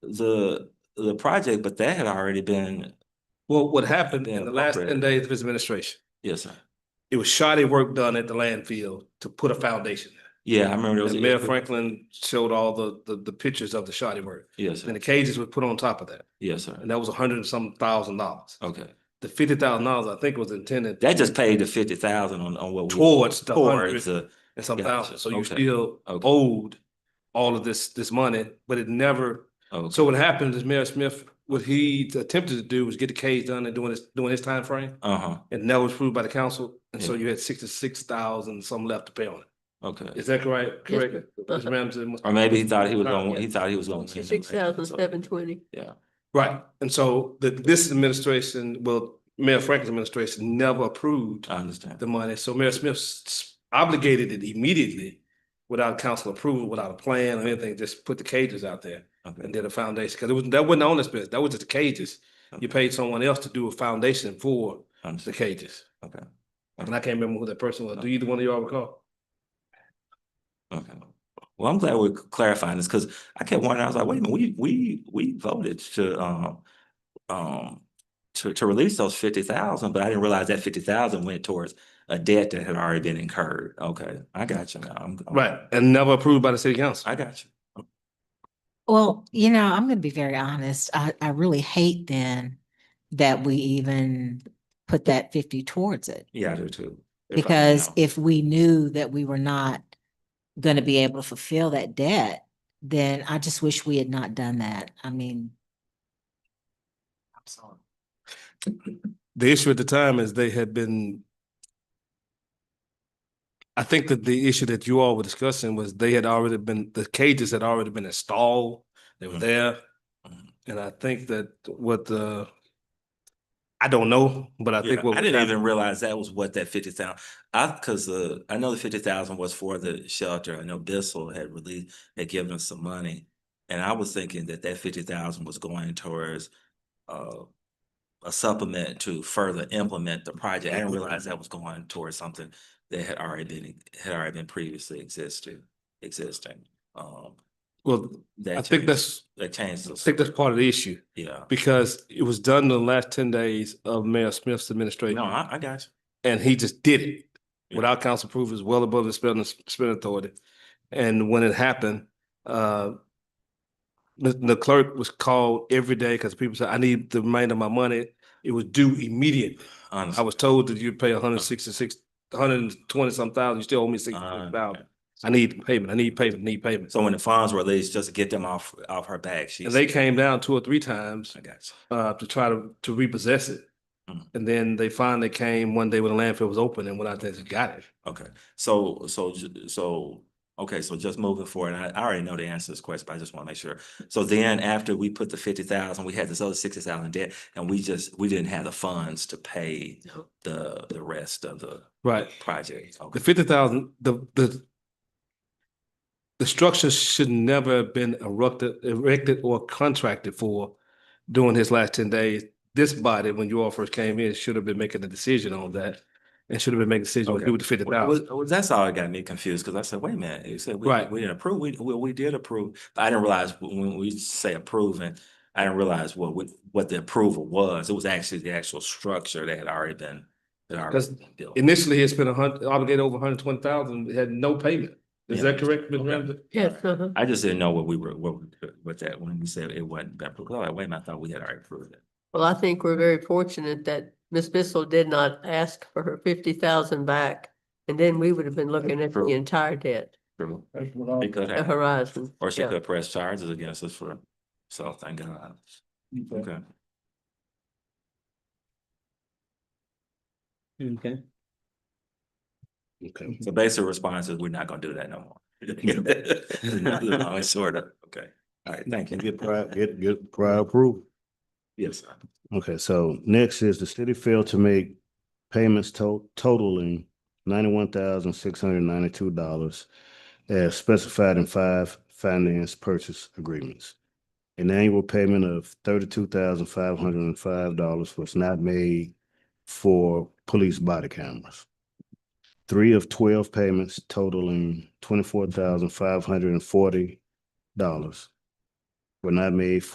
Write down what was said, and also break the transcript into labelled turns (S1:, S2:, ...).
S1: the, the project, but that had already been,
S2: Well, what happened
S1: Been
S2: in the last ten
S1: appropriated.
S2: days of his administration,
S1: yes, sir.
S2: it was shoddy work done at the landfill to put a foundation.
S1: Yeah, I remember. e-, there was
S2: And
S1: a-
S2: Mayor Franklin showed all the, the, the pictures of the shoddy work.
S1: Yes,
S2: And
S1: sir.
S2: the cages were put on top of that.
S1: Yes, sir.
S2: And that was a hundred and some thousand dollars.
S1: Okay.
S2: The fifty thousand dollars, I think, was intended
S1: That just paid the fifty thousand on, on what. we-
S2: towards the
S1: Towards
S2: hundred
S1: the,
S2: and some
S1: Gotcha.
S2: thousand. So you
S1: Okay.
S2: still
S1: Okay.
S2: owed all of this, this money, but it never
S1: oh,
S2: So what happened is Mayor Smith, what he attempted to do was get the case done and doing his, doing his timeframe.
S1: uh-huh,
S2: And that was approved by the council. And so
S1: Yeah.
S2: you had sixty-six thousand some left to pay on it.
S1: okay.
S2: Is that correct?
S3: Yes,
S2: Correct? Ms. Ramsey must-
S1: Or maybe he thought he was going, he thought he was going. to
S3: Six thousand seven twenty.
S1: Yeah,
S2: Right. And so the, this administration, well, Mayor Franklin's administration never approved
S1: I understand.
S2: the money. So Mayor Smith s- obligated it immediately without council approval, without a plan or anything, just put the cages out there. and
S1: Okay,
S2: did a foundation, because it was, that wasn't on this business, that was just the cages.
S1: Okay.
S2: You paid someone else to do a foundation
S1: I
S2: for the
S1: understand.
S2: cages.
S1: Okay.
S2: And I can't remember who that person was. Do either one of y'all recall?
S1: Okay. Well, I'm glad we're clarifying this, because I kept wondering, I was like, wait a minute, we, we, we voted to, um, um, to, to release those fifty thousand, but I didn't realize that fifty thousand went towards a debt that had already been incurred. Okay, I got you now. I'm. I'm-
S2: Right, and never approved by the city council.
S1: I got you.
S4: Well, you know, I'm gonna be very honest. I, I really hate then that we even put that fifty towards it.
S1: Yeah, I do too. If I
S4: Because
S1: know.
S4: if we knew that we were not gonna be able to fulfill that debt, then I just wish we had not done that. I mean. I'm sorry.
S2: The issue at the time is they had been. I think that the issue that you all were discussing was they had already been, the cages had already been installed, they were
S1: Mhm.
S2: there.
S1: Mhm.
S2: And I think that what the. I don't know, but I
S1: Yeah,
S2: think what.
S1: I
S2: was
S1: didn't
S2: happening-
S1: even realize that was what that fifty thousand, I, cause uh, I know the fifty thousand was for the shelter, I know Bissell had released, had given us some money. And I was thinking that that fifty thousand was going towards uh a supplement to further implement the project, I didn't realize that was going towards something that had already been, had already been previously existed, existing. Um,
S2: Well,
S1: that
S2: I think
S1: changed-
S2: that's,
S1: That changed,
S2: I
S1: the-
S2: think that's part of the issue,
S1: yeah,
S2: because it was done in the last ten days of Mayor Smith's
S1: no,
S2: administration,
S1: I, I got
S2: and he just did it
S1: Yeah.
S2: without council approval, is well above the spending, spending authority. And when it happened, uh, the, the clerk was called every day, because people said, I need the remainder of my money, it was due immediately.
S1: you, honestly.
S2: I was told that you'd pay hundred and sixty-six, hundred and twenty some thousand, you still owe me
S1: uh,
S2: sixty-six thousand. I need payment, I need payment, I need payment.
S1: So when the funds were released, just to get them off, off her back, she.
S2: And they came down two or three times,
S1: I got
S2: uh, to try to, to repossess it.
S1: Mhm.
S2: And then they finally came one day when the landfill was open and went out there and got it.
S1: you. Okay, so, so, ju- so, okay, so just moving forward, and I, I already know the answer to this question, but I just want to make sure. So then after we put the fifty thousand, we had this other sixty thousand debt, and we just, we didn't have the funds to pay
S3: No.
S1: the, the rest of the
S2: Right.
S1: project. Okay.
S2: The fifty thousand, the, the the structure should never have been erected, erected or contracted for during his last ten days. This body, when you all first came in, should have been making a decision on that and should have been making a decision what to
S1: Okay.
S2: do with the fifty
S1: Well,
S2: thousand.
S1: well, well, that's all it got me confused, because I said, wait a minute, you said we,
S2: Right.
S1: we didn't approve, we, well, we did approve, but I didn't realize w- when we say approving, I didn't realize what, we- what the approval was, it was actually the actual structure that had already been, that already
S2: 'Cause
S1: been built.
S2: Initially, he had spent a hundred, obligated over hundred and twenty thousand, had no payment. Is
S1: Yeah.
S2: that correct, Ms.
S1: Okay.
S2: Ramsey?
S3: Yes, uh-huh.
S1: I just didn't know what we were, what, we- what that, when you said it wasn't been approved, I was like, wait a minute, I thought we had already approved it.
S3: Well, I think we're very fortunate that Ms. Bissell did not ask for her fifty thousand back. And then we would have been looking at the
S1: True.
S3: entire debt,
S1: True.
S2: That's what I-
S1: It could
S3: the
S1: have,
S3: horizon.
S1: or she
S3: yeah.
S1: could press charges against us for, so thank God, okay.
S2: Okay. Okay.
S1: So basic response is, we're not gonna do that no more. Long and short of, okay, all right, thank you.
S5: Get prior, get, get prior approval.
S1: Yes, sir.
S5: Okay, so next is the city failed to make payments to- totaling ninety-one thousand, six hundred ninety-two dollars as specified in five finance purchase agreements. An annual payment of thirty-two thousand, five hundred and five dollars was not made for police body cameras. Three of twelve payments totaling twenty-four thousand, five hundred and forty dollars were not made